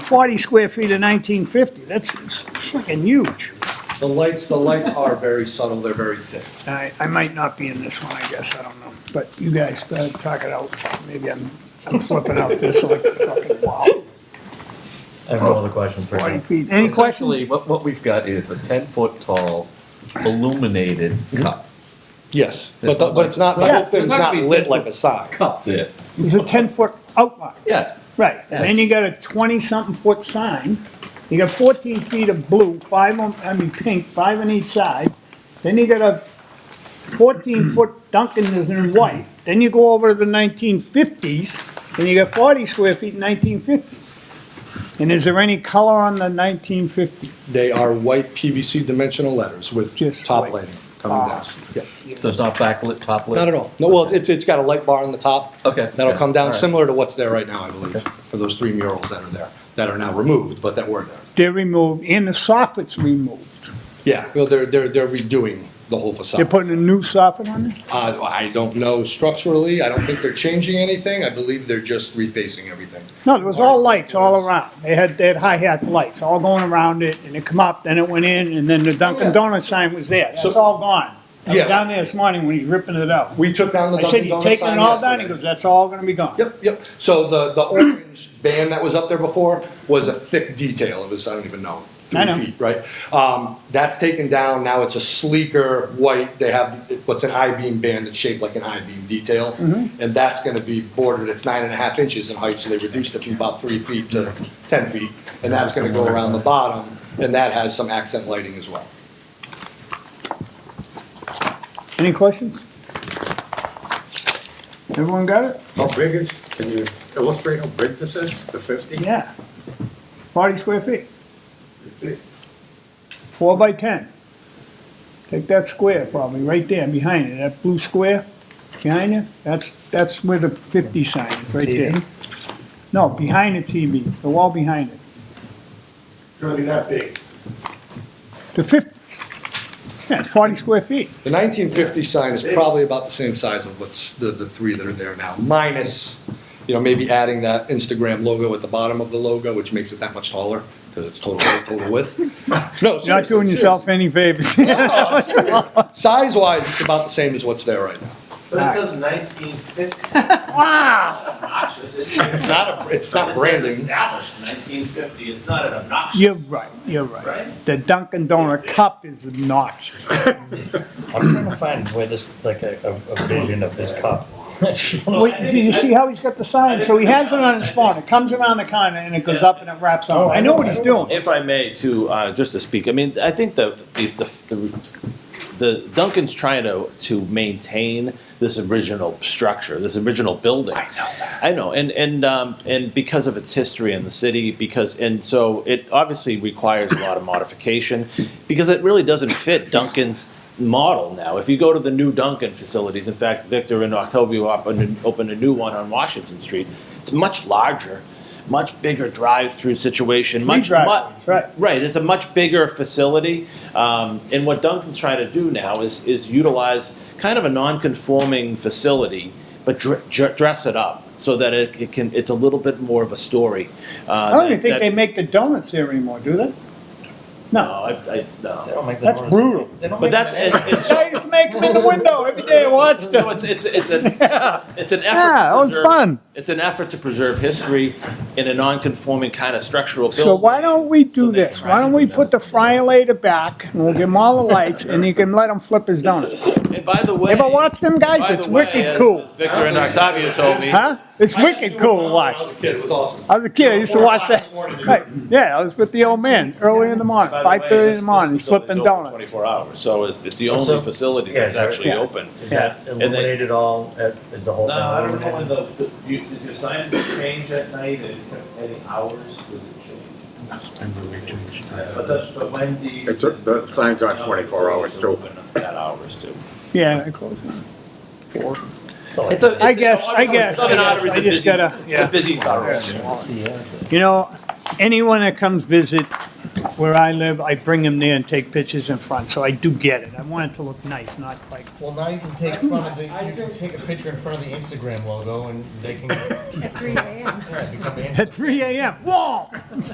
40 square feet to 1950. That's it's freaking huge. The lights, the lights are very subtle, they're very thick. I, I might not be in this one, I guess, I don't know. But you guys, go ahead, talk it out. Maybe I'm, I'm flipping out this like a fucking wow. I have no other questions for 40 you. feet. Any Essentially, questions? what, what we've got is a ten-foot-tall illuminated cup. Yes, but, the- but it's not, the whole thing's not lit like a sock. Oh. Cup there. It's a 10-foot outline. Yeah, Right, and then you got a twenty-something foot sign, you got fourteen feet of blue, five on, I mean, pink, five on each side, then you got a fourteen foot Dunkin' is in white, then you go over to the nineteen fifties, and you got forty square feet in nineteen fifty. And is there any color on the nineteen fifty? They are white PVC dimensional letters with Just top white. lighting coming down. Ah. Yeah. so it's not backlit, top lit? Not at all. No, well, it's, it's got a light bar on the top. Okay. That'll come All down right. similar to what's there right now, I believe, for those three murals that are there, that are now removed, but that were there. They're removed, and the soffit's removed, Yeah, well, they're, they're, they're redoing the whole facade. they're putting a new soffit on it? Uh, I don't know structurally, I don't think they're changing anything, I believe they're just refacing everything. No, there was all lights all around. They had, they had hi-hat lights all going around it, and it come up, then it went in, and then the Dunkin' Donuts sign was there. That's all gone. I was Yeah. down there this morning when he's ripping it out. We took down the I said, Dunkin' you Donuts taking it sign all down? He yesterday. goes, that's all gonna be gone. Yep, yep, so the, the orange band that was up there before was a thick detail, it was, I don't even know, I three know. feet, right? Um, that's taken down, now it's a sleeker white, they have what's an I-beam band that's shaped like an I-beam detail. Mm-hmm. And that's gonna be bordered, it's nine and a half inches in height, so they reduced it from about three feet to ten feet. And that's gonna go around the bottom, and that has some accent lighting as well. Any questions? Everyone got it? How big is, can you illustrate how big this is, the fifty? Yeah. Forty square feet, four by ten. Take that square probably, right there, behind it, that blue square behind you, that's, that's where the fifty sign is, right there. No, behind the TV, the wall behind it. Gonna be that big. The fifty, yeah, it's forty square feet. The nineteen fifty sign is probably about the same size of what's the, the three that are there now, minus, you know, maybe adding that Instagram logo at the bottom of the logo, which makes it that much taller, because it's total, total width. No, You're not doing yourself any favors. Size wise, it's about the same as what's there right now. But it says nineteen fifty. Wow. It's not, a- it's not branding. established nineteen fifty, it's not an obnoxious. You're right, you're right. Right? The Dunkin' Donut cup is obnoxious. I'm trying to find where this, like, a, a- a vision of this cup. Wait, do you see how he's got the sign? So he has it on his phone, it comes around the corner and it goes up and it wraps up. I know what he's doing. If I may, to, uh, just to speak, I mean, I think the, the, the- the Duncan's trying to, to maintain this original structure, this original building. I know that. I know, and, and, um, and because of its history in the city, because, and so it obviously requires a lot of modification, because it really doesn't fit Duncan's model now. If you go to the new Duncan facilities, in fact, Victor and Octavio opened, opened a new one on Washington Street, it's much larger, much bigger drive-through situation, much, mu- drive-throughs, right. Right, it's a much bigger facility, um, and what Duncan's trying to do now is, is utilize kind of a non-conforming facility, but dr- dr- dress it up so that it, it can, it's a little bit more of a story. uh, I don't even think they make the donuts there anymore, do they? No, No, I, I, no. that's brutal. But that's, and, and so, I used to make them in the window every day I watched no, them. it's, it's, it's an, it's an effort. Yeah, to that was preserve- fun. It's an effort to preserve history in a non-conforming kind of structural building. So why don't we do So they this? Why don't we put the fryer later back and we'll give him all the lights and you can let him flip his donut. And by the way. Ever watch them guys? by It's the way, wicked as- cool. as Victor and Octavio told me. Huh? It's wicked cool to When watch. I was a kid, it was awesome. I was a kid, I used to watch that. Right, yeah, I was with the old man early in the morning, By the way, five thirty in this- the morning, this he's flipping facility's open donuts. Twenty-four hours, so it's, it's the What's only up? facility Yeah, that's yeah. actually Yeah. open. Is that And then- illuminated all, uh, is the whole No, thing I don't know illuminated? when the, the- you, did your sign change at night and any hours, was it changed? But the, but when do you? It's, a- the sign's on twenty-four hours Facilities too. are open At hours too. Yeah, of course. It's a- I it's a- guess, I obviously, guess, I Southern guess, Ottery's I a just busy- gotta, It's a yeah. busy borough. You know, anyone that comes visit where I live, I bring them there and take pictures in front, so I do get it. I want it to look nice, not like, Well, now you can take front of the, you can take a picture in front of the Instagram logo and they can At 3 a.m. yeah, become Instagram. at three AM, whoa!